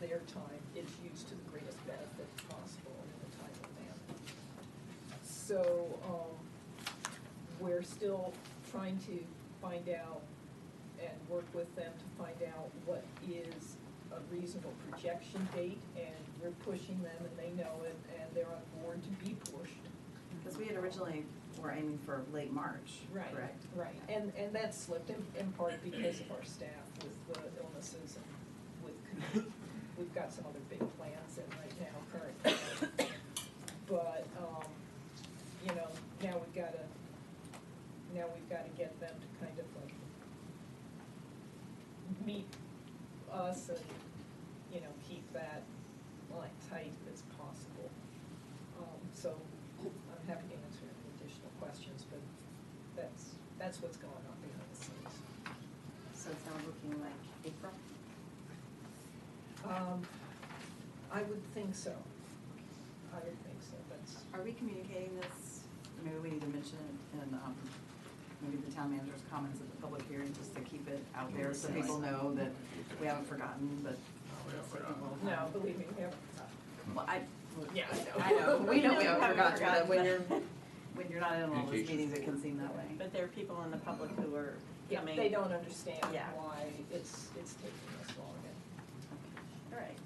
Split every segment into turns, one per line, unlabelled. their time is used to the greatest benefit possible in the timely manner. So, um, we're still trying to find out and work with them to find out what is a reasonable projection date, and we're pushing them, and they know it, and they're on board to be pushed.
Because we had originally, were aiming for late March,
Right,
correct?
right, and, and that slipped in, in part because of our staff with the illnesses and with, COVID. we've got some other big plans in right now currently. But, um, you know, now we've gotta, now we've gotta get them to kind of like meet us and, you know, keep that line tight as possible. Um, so I'm happy to answer any additional questions, but that's, that's what's going on behind the scenes.
So it's now looking like April.
Um, I would think so. I would think so, that's,
Are we communicating this? Maybe we need to mention it in, um, maybe the town manager's comments at the public hearing, just to keep it out there so people know that we haven't forgotten, but. just so people
no,
have-
believe me, we have,
Well, I,
yeah,
I know, we know we haven't forgotten,
forgotten,
but when you're, when you're not in all those
Communication.
meetings, it can seem that way.
But there are people in the public who are
Yeah,
coming.
they don't understand
Yeah.
why it's, it's taking this long and.
All right,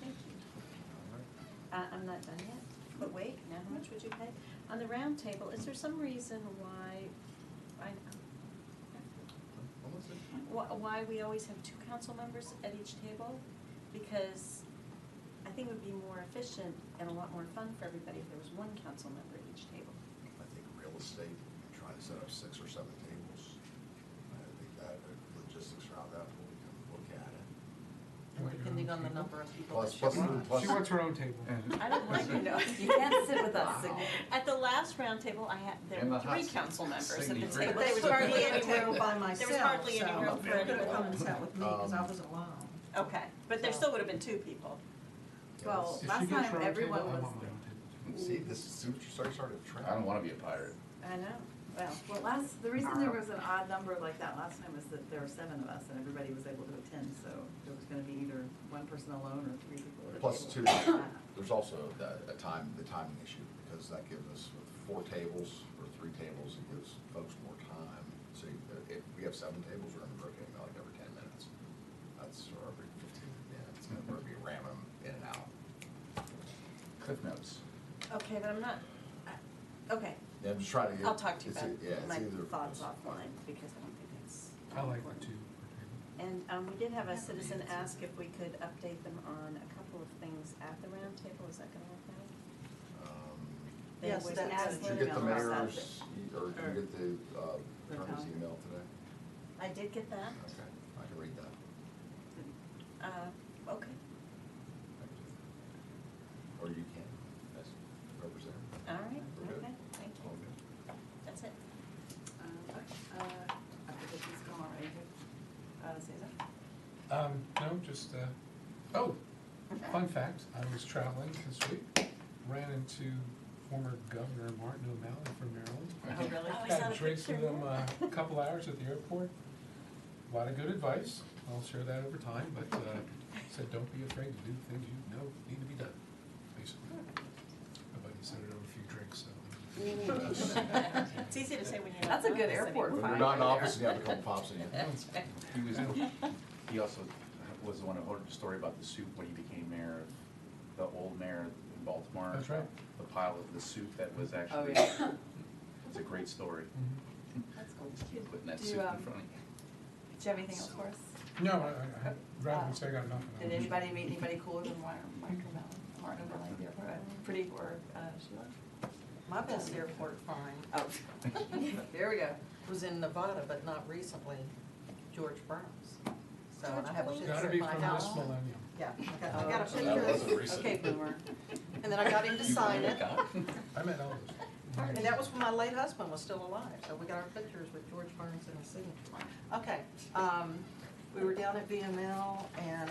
thank you. Uh, I'm not done yet, but wait, now how much would you pay? On the round table, is there some reason why, I, wh- why we always have two council members at each table? Because I think it would be more efficient and a lot more fun for everybody if there was one council member at each table.
I think real estate, trying to set up six or seven tables, I think that, uh, logistics around that, we'll look at it.
Depending on the number of people that
Plus,
show
plus,
up.
plus.
She wants her own table.
I don't want you know,
You can't sit with us.
Wow.
At the last roundtable, I had, there were
Emma
three
Hudson.
council members at the
Signy
table.
Grant.
But they
There was
would
hardly
be at
any
the table
room.
by
There
myself,
was hardly any
so-
room for
Could have come and
anyone.
sat with me, because I
Um,
was alone.
Okay, but there still would have been two people.
Well,
If she
last
goes for her
time
own
everyone
table, I
was,
want my own table.
See, this is, see what you start, starting to trap.
I don't wanna be a pirate.
I know, well,
well, last, the reason there was an odd number like that last time is that there were seven of us and everybody was able to attend, so there was gonna be either one person alone or three people. at a
Plus two,
table.
there's also the, a time, the timing issue, because that gives us four tables or three tables, it gives folks more time. So you- uh, if we have seven tables, we're gonna be rotating like every ten minutes. That's, or every fifteen minutes, and we're gonna be ramming them in and out.
Cliff notes.
okay, but I'm not, I- okay,
Yeah, I'm just trying to get.
I'll talk to you
it's e-
about
Yeah, it's
my
either.
thoughts offline, because I don't think that's.
I like the two per
And, um, we did have a citizen ask if we could update them on a couple of things at the roundtable, is that gonna work out?
Um,
They
Yes,
would
that's-
ask
Did you get the
Email about that.
mayor's, e- or did you get the uh,
The
attorney's
town.
email today?
I did get that,
Okay, I can read that.
uh, okay,
Or you can, as representative.
all right,
We're good.
okay, thank you,
All good.
that's it.
Um, uh, applications come already, uh, Susan?
table. Um, no, just, uh, oh, fun fact, I was traveling this week, ran into former Governor Martin O'Malley from Maryland.
Oh, really?
I Had drinks with him uh, a couple hours at the airport. A lot of good advice. I'll share that over time, but uh, said, don't be afraid to do things you know need to be done, basically. My buddy said it over a few drinks, so.
It's easy to say when you're not.
That's a good
nervous
airport
anymore.
When
fine
you're not
right
in
there.
office, and you have a couple pops in you.
That's right.
He was, he also was the one who told the story about the soup when he became mayor, of the old mayor in Baltimore.
That's right.
The pile of the soup that was
Oh,
actually,
yeah.
it's a great story,
Mhm.
That's cool.
putting that
Do,
soup in
um,
front of you.
Do you have anything else for us?
No, I, I- I, driving, so I got nothing.
Did anybody meet anybody cooler than Martin, Martin O'Malley, Martin O'Malley at the airport? Uh, Pretty, or, uh, Sheila?
My best airport find
Oh, there we go.
was in Nevada, but not recently, George Burns. So and I have a
George
picture
Gotta
at
be
my
from this
house.
millennium.
Yeah, I got- I got a
Oh, okay.
That wasn't
picture,
recent.
Okay, boomer.
and then I got him to sign it,
I met Elvis.
and that was when my late husband was still alive, so we got our pictures with George Burns and his signature. Okay, um, we were down at VML, and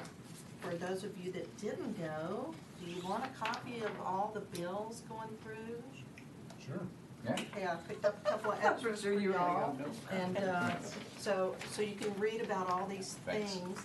for those of you that didn't go, do you want a copy of all the bills going through?
Sure.
Yeah.
Yeah, I picked up a couple of extras for you all. And uh, so, so you can read about all these
Thanks.
things